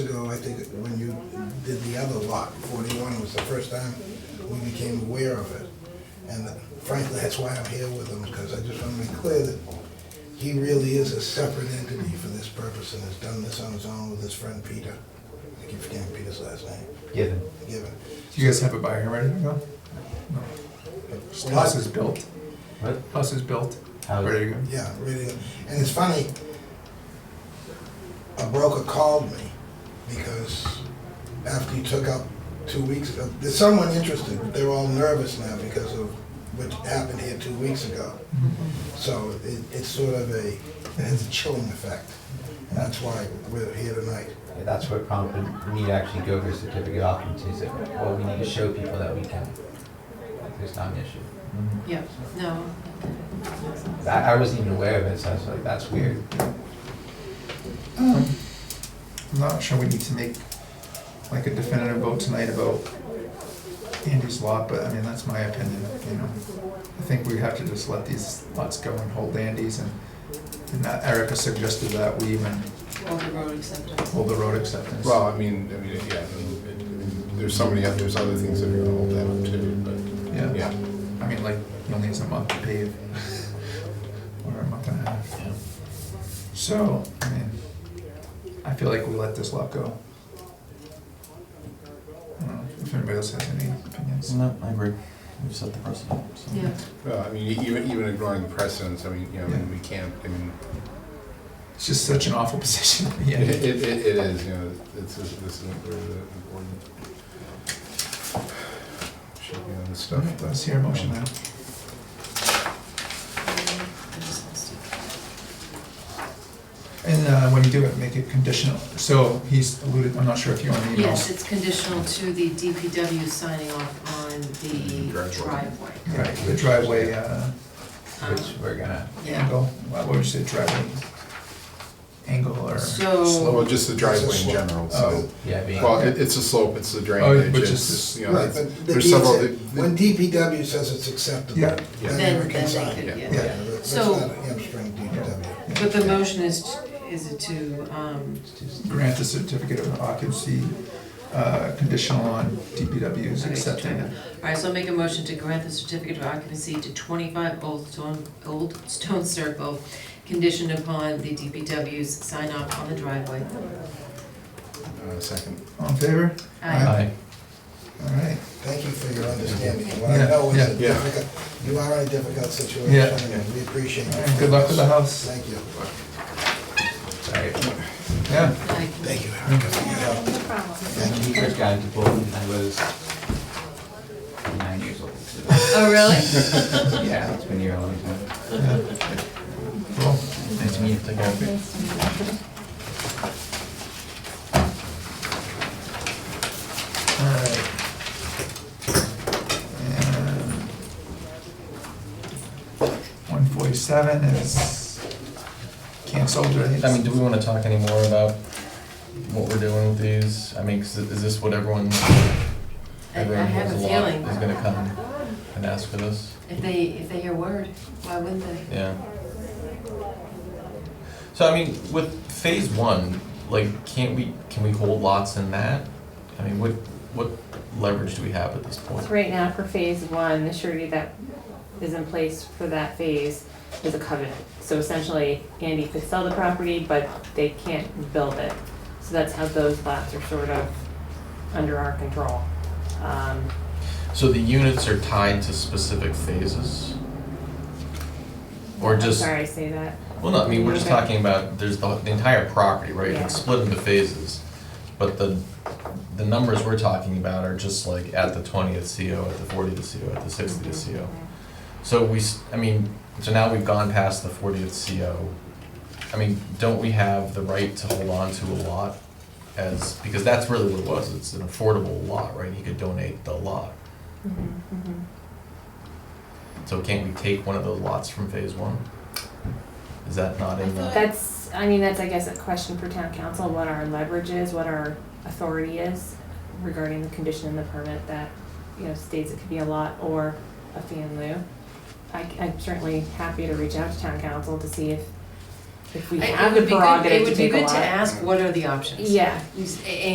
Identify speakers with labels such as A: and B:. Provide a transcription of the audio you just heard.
A: other lot, forty-one was the first time we became aware of it. And frankly, that's why I'm here with him, because I just want to be clear that he really is a separate entity for this purpose and has done this on his own with his friend Peter. I keep forgetting Peter's last name,
B: given.
A: given.
C: Do you guys have a buyer ready to go? House is built.
B: What?
C: House is built.
B: How-
C: Ready to go.
A: Yeah, really. And it's funny, a broker called me because after he took up two weeks ago, there's someone interested. They're all nervous now because of what happened here two weeks ago. So it, it's sort of a, it has a chilling effect. And that's why we're here tonight.
B: That's what prompted me to actually go for a certificate of occupancy. Is that, well, we need to show people that we can. Like, There's not an issue.
D: Yeah, no.
B: That, I wasn't even aware of it, so I was like, that's weird.
C: Um, I'm not sure we need to make like a definitive vote tonight about Andy's lot, but I mean, that's my opinion, you know. I think we have to just let these lots go and hold Andy's and, and that Erica suggested that we even
D: All the road acceptance.
C: hold the road acceptance.
E: Well, I mean, I mean, yeah, I mean, it- it- there's so many, oth- there's other things that are gonna hold that up too, but,
C: Yeah,
E: yeah.
C: I mean, like, he only has a month to pave. Or a month and a half. So, I mean, I feel like we let this lot go. I don't know if anybody else has any opinions.
F: No, I agree. We've set the precedent. so.
D: Yeah,
E: Well, I mean, e- even, even ignoring the precedents, I mean, you know, I mean, we can't, I mean,
C: It's just such an awful position to be
E: it,
C: in.
E: it, it it is, you know, it's, this this isn't where the important. Should be on this stuff,
C: Alright, Let's
E: but.
C: hear a motion now.
D: I just lost it.
C: And uh, when you do it, make it conditional. So he's alluded, I'm not sure if you want to email.
D: Yes, it's conditional to the DPW signing off on the
E: Driveway.
D: driveway.
C: Right, the driveway, uh,
D: Um,
B: Which we're gonna,
D: Yeah,
C: angle, what would you say, driveway angle or?
D: so,
E: Well, just the driveway in general, so,
C: Oh.
B: yeah, being.
E: well, it, it's a slope, it's the drainage,
C: which
E: it's,
C: is-
E: you know,
A: Right,
E: it's-
A: but the
E: there's
A: deed
E: several.
A: said-
E: the-
A: When DPW says it's acceptable,
C: Yeah.
A: then
E: Yeah.
A: they
D: then,
A: can
D: then they
A: sign.
D: could,
E: Yeah.
D: yeah.
A: Yeah, that's
D: So-
A: not a hamstring DPW.
D: But the motion is, is it to, um,
C: grant the certificate of occupancy uh, conditional on DPW's
D: Okay,
C: accepting it.
D: all right, so I'll make a motion to grant the certificate of occupancy to twenty-five Old Stone, Old Stone Circle, conditioned upon the DPW's sign off on the driveway.
E: uh, Second.
C: All in favor?
D: Aye.
B: Aye.
C: All right.
A: Thank you for your understanding. What I
C: Yeah,
A: know is a
E: yeah.
A: difficult, you are in a difficult
C: Yeah.
A: situation, and we appreciate
C: All
A: it.
C: right, Good luck with the house.
A: Thank you.
B: Sorry.
C: Yeah.
D: Aye.
A: Thank you, Erica, for your help.
B: When we first got into Bolton, I was nine years old. so-
D: Oh, really?
B: Yeah, it's been a year long time.
C: Cool.
B: Nice to meet you. Take care.
C: All right. And 147 is canceled, right?
F: I mean, do we want to talk any more about what we're doing with these? I mean, 'cause is this what everyone's,
D: I
F: everyone who has
D: have
F: a
D: a
F: lot
D: feeling.
F: is gonna come and ask for this?
D: If they, if they hear word, why wouldn't they?
F: Yeah. So I mean, with phase one, like, can't we, can we hold lots in that? I mean, what, what leverage do we have at this point?
G: So right now for phase one, the surety that is in place for that phase is a covenant. So essentially, Andy could sell the property, but they can't build it. So that's how those lots are sort of under our control. Um,
F: So the units are tied to specific phases? Or
G: I'm
F: just,
G: sorry I say that.
F: well, no, I mean, we're just
G: Okay.
F: talking about, there's the, the entire property, right?
G: Yeah.
F: It's split into phases. But the, the numbers we're talking about are just like at the twentieth CO, at the fortieth CO, at the E sixtieth
G: Mm-hmm.
F: CO. So we, s- I mean, so now we've gone past the fortieth CO. I mean, don't we have the right to hold on to a lot as, because that's really what it was, it's an affordable lot, right? He could donate the lot.
G: Mhm, mhm.
F: So can't we take one of those lots from phase one? Is that not in the,
G: That's, I mean, that's, I guess, a question for town council, what our leverage is, what our authority is regarding the condition in the permit that, you know, states it could be a lot or a fee in lieu. I, am certainly happy to reach out to town council to see if, if we
D: I- it
G: have
D: would
G: the
D: be good-
G: prerogative to take a lot.
D: It would be good to ask, what are the options?
G: Yeah,
D: You s- a-